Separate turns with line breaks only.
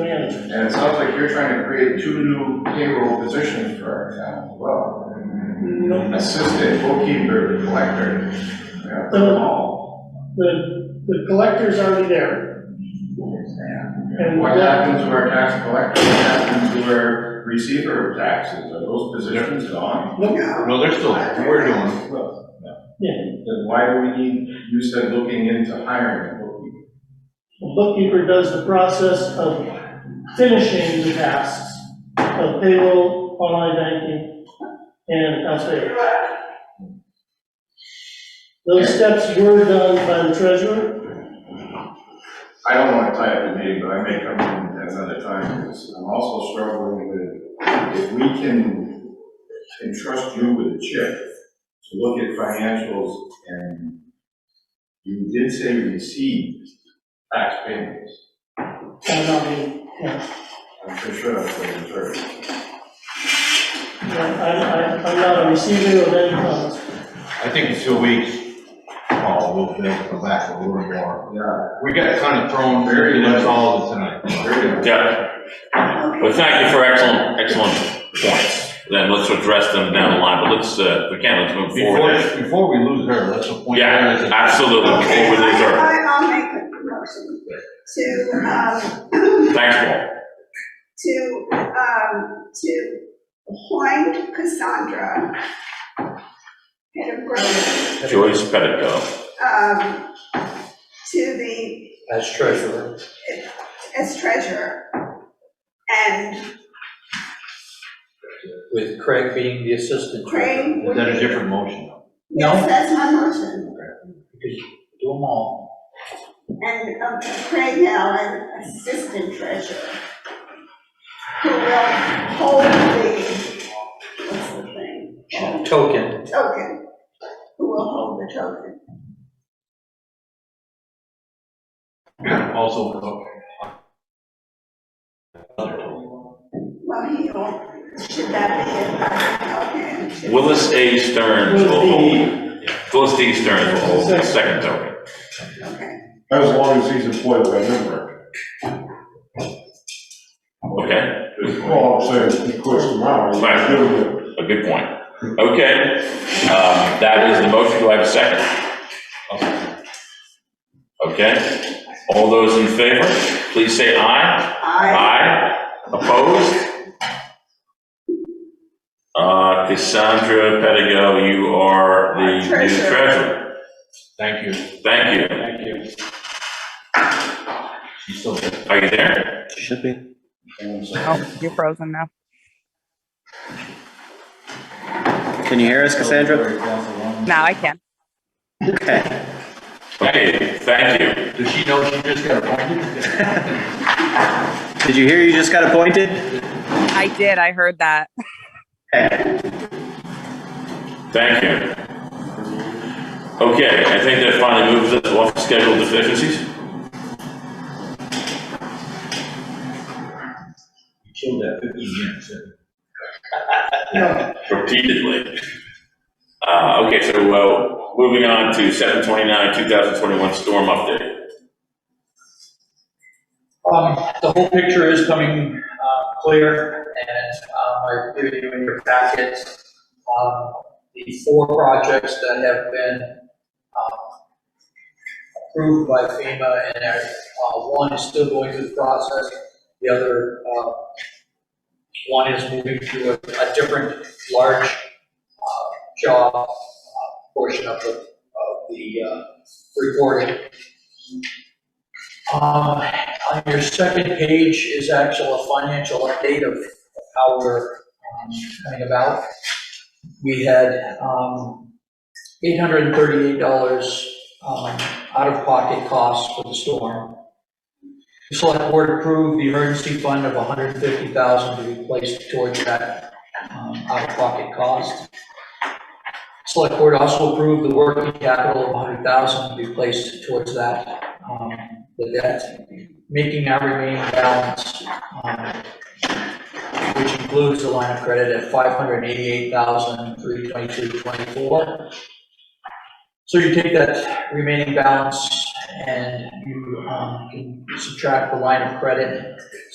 managers.
And it sounds like you're trying to create two new payroll positions for our town as well.
No,
Assistant, bookkeeper, collector, we have them all.
the, the collector's already there. And
What happens to our tax collector, what happens to our receiver of taxes, are those positions gone?
Nope,
No, they're still, we're doing, it.
Well, no.
Yeah.
Then why do we need, you said looking into hiring a bookkeeper?
the bookkeeper does the process of finishing the tasks of payroll, online banking, and accounts payable. Those steps were done by the treasurer,
I don't wanna tie up the meeting, but I may come in at another time, because I'm also struggling with, if we can entrust you with a chip to look at financials, and you did say received tax payments,
and I mean,
I'm pretty sure that's what it was.
I, I, I'm not a receiver of any funds.
I think in two weeks, Paul, we'll be able to go back a little more.
Yeah,
We got kind of thrown very much all tonight.
very good.
Yeah. Well, thank you for excellent, excellent points. Then let's address them down the line, but let's, uh, if we can, let's move forward.
Before, before we lose her, let's appoint her as
Yeah,
a.
absolutely,
Okay,
before we lose her.
I, I'll make a motion to, um,
Thanks, Paul.
to, um, to appoint Cassandra head of growth,
Joyce Pettico.
um, to the,
As treasurer.
as treasurer. And
With Craig being the assistant treasurer.
Craig
Is
would
that a
be.
different motion?
Yes, that's my motion.
Because you Do them all.
And um, Craig Allen, assistant treasurer, who will hold the, what's the thing?
Oh.
Token.
Token, who will hold the token.
Also, okay.
Well, he will, should that be it? Okay, it should-
Willis A. Stearns will hold. Willis D. Stearns will hold the second token.
Okay,
As long as he's employed by Nemrick.
Okay,
Well, I'm saying, he quits tomorrow, he's
Right.
doing it.
a good point. Okay, um, that is the motion. Do I have a second? Okay, all those in favor, please say aye.
I,
Aye. Opposed? Uh, Cassandra Pedigo, you are the new
Treasurer.
treasurer.
Thank you.
Thank you.
Thank you. She's still there.
Are you there?
Should be.
Oh, you're frozen now.
Can you hear us, Cassandra?
Now I can.
Okay.
Okay, thank you.
Does she know she just got appointed?
Did you hear you just got appointed?
I did. I heard that.
Thank you. Okay, I think that finally moves us off scheduled deficiencies.
Killed that fifteen minutes.
repeatedly. Uh, okay, so, well, moving on to seven twenty-nine, two thousand twenty-one storm update.
Um, the whole picture is coming, uh, clear, and, um, I've given you in your packet, um, the four projects that have been, um, approved by FEMA, and, uh, one is still going through the process, the other, uh, one is moving through a, a different large, uh, job, uh, portion of the, of the, uh, reporting. Um, on your second page is actual a financial update of how we're um, coming about. We had um, $838 um, out-of-pocket costs for the storm. The select board approved the emergency fund of $150,000 to be placed towards that um, out-of-pocket cost. Select board also approved the working capital of $100,000 to be placed towards that, um, the debt making our remaining balance, um, which includes the line of credit at five hundred eighty-eight thousand, three twenty-two, twenty-four. So you take that remaining balance and you, um, can subtract the line of credit